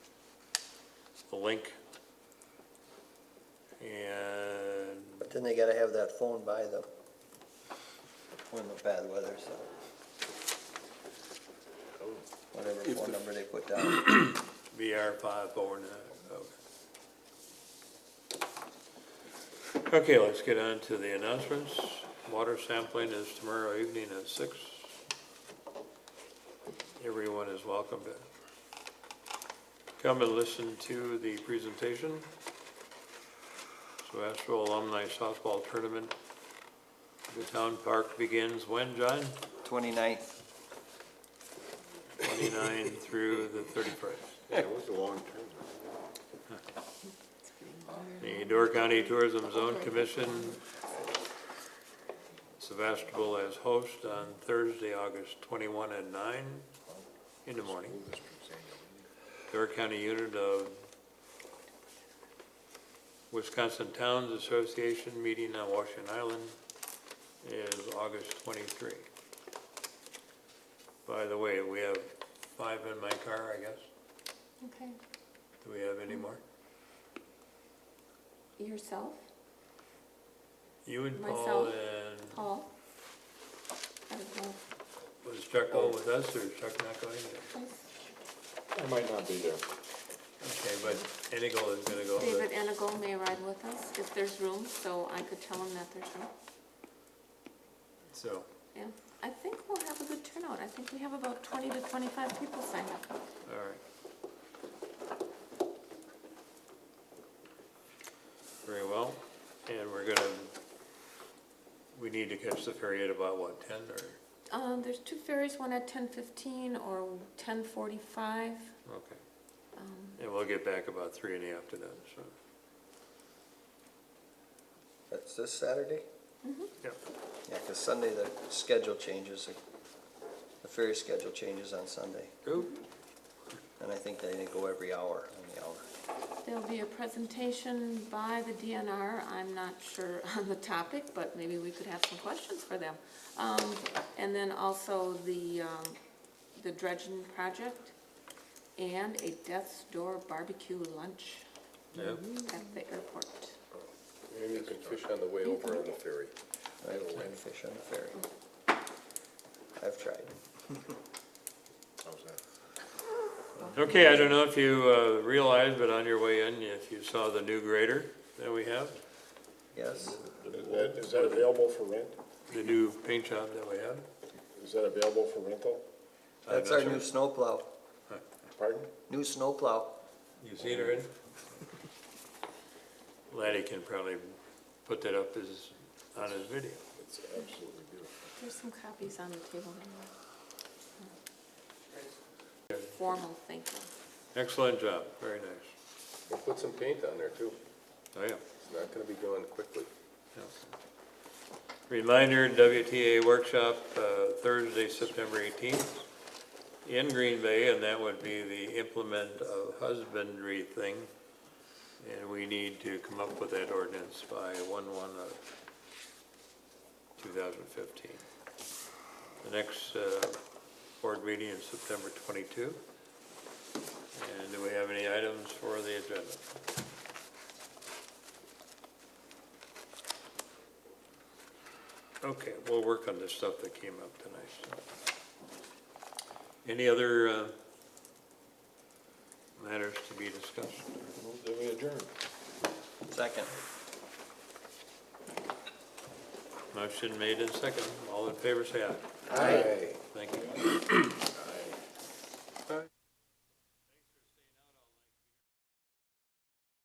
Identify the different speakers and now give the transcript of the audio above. Speaker 1: the link. And,
Speaker 2: But then they gotta have that phone by them when the bad weather, so. Whatever
Speaker 1: If
Speaker 2: phone
Speaker 1: the-
Speaker 2: number they put down.
Speaker 1: VR five uh, four nine, okay. Okay, let's get on to the announcements. Water sampling is tomorrow evening at six. Everyone is welcome to come and listen to the presentation. So Astro Alumni Softball Tournament, the town park begins when, John?
Speaker 2: Twenty-ninth,
Speaker 1: Twenty-nine through the thirty-first.
Speaker 3: Yeah, it was a long term.
Speaker 1: The Door County Tourism Zone Commission, Sebastopol as host on Thursday, August 21 at 9 in the morning. Door County Unit of Wisconsin Towns Association meeting on Washington Island is August 23. By the way, we have five in my car, I guess.
Speaker 4: Okay,
Speaker 1: Do we have any more?
Speaker 4: yourself,
Speaker 1: You and Paul
Speaker 4: Myself.
Speaker 1: and
Speaker 4: Paul. I don't know,
Speaker 1: Was Chuck going with us or is Chuck not going? either?
Speaker 4: please.
Speaker 3: I might not be there.
Speaker 1: Okay, but Inigo is gonna go. but-
Speaker 4: David Enigo may ride with us if there's room, so I could tell him that there's room.
Speaker 1: So,
Speaker 4: Yeah, I think we'll have a good turnout. I think we have about twenty to twenty-five people signed up.
Speaker 1: all right. Very well, and we're gonna, we need to catch the ferry at about what, ten or,
Speaker 4: Um, there's two ferries, one at ten fifteen or ten forty-five.
Speaker 1: okay.
Speaker 4: Um,
Speaker 1: And we'll get back about three in the afternoon, so.
Speaker 2: that's this Saturday?
Speaker 1: Yep.
Speaker 2: Yeah, 'cause Sunday the schedule changes, the- the ferry schedule changes on Sunday.
Speaker 1: Oop,
Speaker 2: And I think they go every hour on the hour.
Speaker 4: There'll be a presentation by the DNR, I'm not sure on the topic, but maybe we could have some questions for them. Um, and then also the, um, the dredging project and a Death's Door barbecue lunch
Speaker 1: yep,
Speaker 4: at the airport.
Speaker 3: Maybe you can fish on the way over on the ferry.
Speaker 2: I have to fish on the ferry. I've tried.
Speaker 3: How's that?
Speaker 1: Okay, I don't know if you uh, realized, but on your way in, if you saw the new grader that we have,
Speaker 2: Yes,
Speaker 3: Mm-hmm.
Speaker 5: Is that- Is that available for rent?
Speaker 1: the new paint job that we had.
Speaker 5: Is that available for rental?
Speaker 1: I'm
Speaker 2: that's
Speaker 1: not
Speaker 2: our
Speaker 1: sure.
Speaker 2: new snowplow,
Speaker 5: Pardon?
Speaker 2: new snowplow.
Speaker 1: You seen her in? Laddie can probably put that up as, on his video.
Speaker 5: It's absolutely beautiful.
Speaker 4: There's some copies on the table. there. Formal thank you.
Speaker 1: Excellent job, very nice.
Speaker 3: We'll put some paint on there too.
Speaker 1: Oh, yeah.
Speaker 3: It's not gonna be gone quickly.
Speaker 1: yeah. Reminder, WTA workshop, uh, Thursday, September eighteenth, in Green Bay, and that would be the implement of husbandry thing. And we need to come up with that ordinance by one-one of two thousand fifteen. The next uh, board meeting is September twenty-two. And do we have any items for the agenda? Okay, we'll work on the stuff that came up tonight. so. Any other uh, matters to be discussed?
Speaker 5: Then we adjourn.
Speaker 2: Second.
Speaker 1: Motion made and second. All in favor, say aye.
Speaker 3: Aye.
Speaker 1: Thank you.